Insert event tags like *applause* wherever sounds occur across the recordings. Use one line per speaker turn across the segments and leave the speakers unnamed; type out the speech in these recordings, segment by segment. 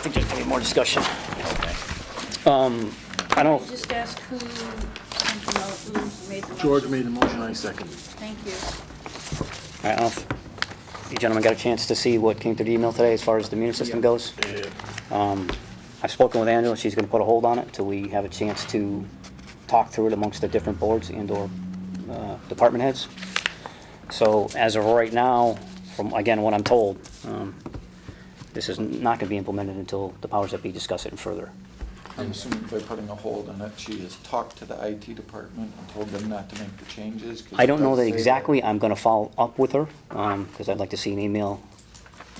I think there's gonna be more discussion. Um, I don't,
Just ask who, sent the mo- who made the motion.
George made the motion, I seconded.
Thank you.
I don't know if you gentlemen got a chance to see what came through the email today as far as the immune system goes. Um, I've spoken with Angela, she's gonna put a hold on it till we have a chance to talk through it amongst the different boards and/or uh, department heads. So as of right now, from, again, what I'm told, um, this is not gonna be implemented until the powers that be discuss it further.
I'm assuming by putting a hold on it, she has talked to the IT department and told them not to make the changes. 'cause
I
it
don't know
does
that
say
exactly, I'm gonna follow up with her, um, because I'd like to see an email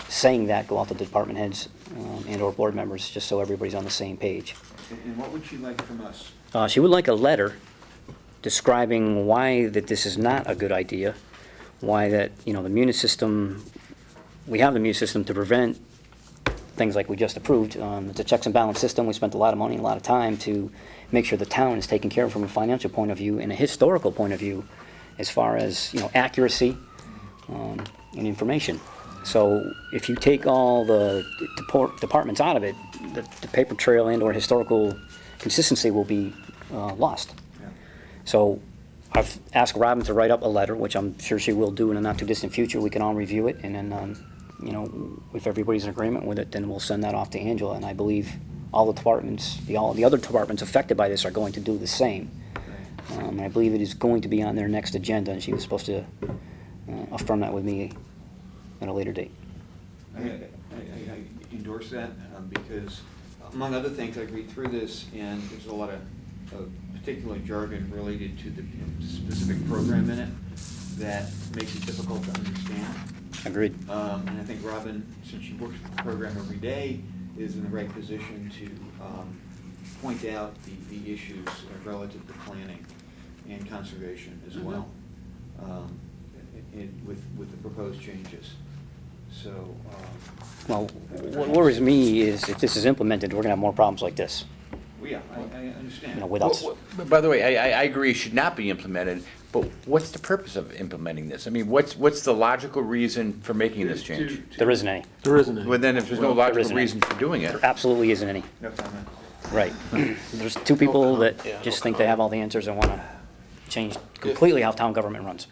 saying that, go out to the department heads um, and/or board members, just so everybody's on the same page.
And and what would you like from us?
Uh, she would like a letter describing why that this is not a good idea, why that, you know, the immune system, we have the immune system to prevent things like we just approved. Um, It's a checks and balance system, we spent a lot of money, and a lot of time to make sure the town is taken care of from a financial point of view and a historical point of view as far as, you know, accuracy um, and information. So if you take all the depor- departments out of it, the the paper trail and/or historical consistency will be uh, lost. So I've asked Robin to write up a letter, which I'm sure she will do in the not-too-distant future. We can all review it, and then, um, you know, if everybody's in agreement with it, then we'll send that off to Angela. And I believe all the departments, the, all the other departments affected by this are going to do the same. Um, and I believe it is going to be on their next agenda, and she was supposed to uh, affirm that with me at a later date.
I, I I- I endorse that um, because among other things, I read through this and there's a lot of, of particular jargon related to the specific program in it that makes it difficult to understand.
Agreed.
Um, and I think Robin, since she works with the program every day, is in the right position to, um, point out the, the issues relative to planning and conservation
Mm-hmm.
as well. Um, in, with, with the proposed changes, so, um,
Well, what worries me is if this is implemented, we're going to have more problems like this,
well, yeah, I, I understand.
you know, with us.
Well, well, By the way, I, I, I agree it should not be implemented, but what's the purpose of implementing this? I mean, what's, what's the logical reason for making this change?
To- to-
There isn't any.
There isn't
Well,
any.
then if there's no
there
logical
isn't.
reason for doing it,
There absolutely isn't any.
No comment.
Right. *clears throat* There's two people that just think they have all the answers and want to change completely how town government runs,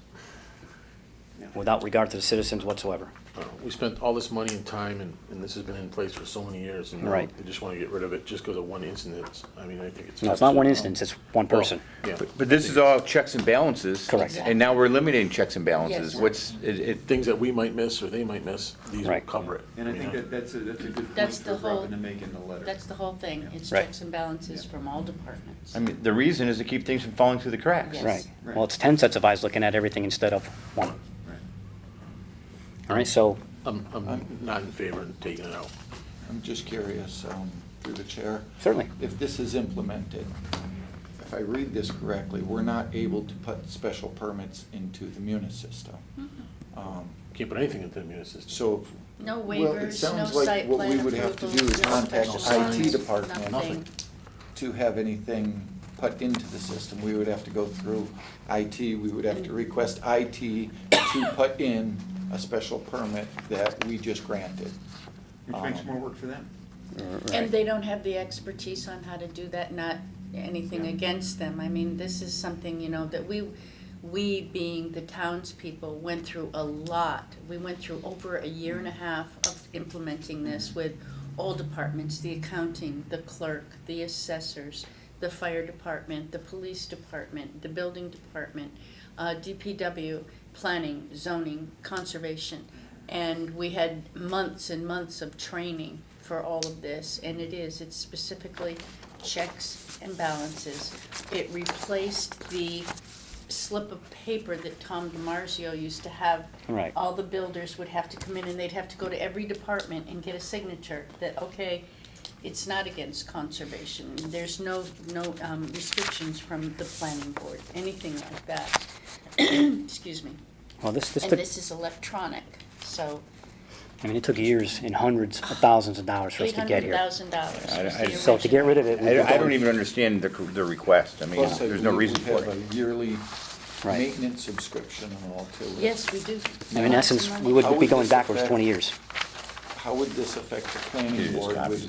without regard to the citizens whatsoever.
Uh, We spent all this money and time, and, and this has been in place for so many years. and
Right.
They just want to get rid of it just because of one incident. I mean, I think it's.
No, it's not one instance, it's one person.
Yeah.
but- but this is all checks and balances.
Correct.
And now we're eliminating checks and balances.
Yes.
What's, it, it,
Things that we might miss or they might miss, these will
Right.
cover it.
And I think
Yeah.
that, that's a, that's a good point
That's the
for
whole-
Robin to make in the letter.
That's the whole thing. It's
Right.
checks and balances from all departments.
I mean, the reason is to keep things from falling through the cracks.
Yes.
Right. Well, it's 10 sets of eyes looking at everything instead of one.
Right.
All right, so,
I'm, I'm not in favor of taking it out.
I'm just curious, um, through the chair.
Certainly.
If this is implemented, if I read this correctly, we're not able to put special permits into the Munis system.
Hmm.
Um,
Can't put anything into the immune system.
So if
No
Well, it
waivers, no
sounds like
site
what we
plan
would have to
approvals,
do is
no
contact
special
IT
signs,
department.
Nothing.
to have anything put into the system, we would have to go through IT, we would have to request IT to put in a special permit that we just granted.
Which makes
Um,
more work for them.
And they don't have the expertise on how to do that, not anything
Yeah.
against them. I mean, this is something, you know, that we, we being the townspeople, went through a lot. We went through over a year and a half of implementing this with all departments, the accounting, the clerk, the assessors, the fire department, the police department, the building department, uh, DPW, planning, zoning, conservation. And we had months and months of training for all of this, and it is, it's specifically checks and balances. It replaced the slip of paper that Tom DiMarzio used to have.
Right.
All the builders would have to come in and they'd have to go to every department and get a signature that, okay, it's not against conservation. There's no, no um, restrictions from the planning board, anything like that. *clears throat* Excuse me.
well, this, this
And
took,
this is electronic, so
I mean, it took years and hundreds of thousands of dollars for us
eight
to get
hundred
here.
thousand dollars
I-
was
I-
the original.
So to get rid of it, we've
I,
been
I don't
going-
even understand the, the request. I mean,
Plus, I
there's no
believe
reason
we
for
have
it.
a yearly
Right.
maintenance subscription and all to it.
Yes, we do.
I mean, In essence, we
would.
would be going backwards 20 years.
How would this affect the
It
planning
is
board
copies.
with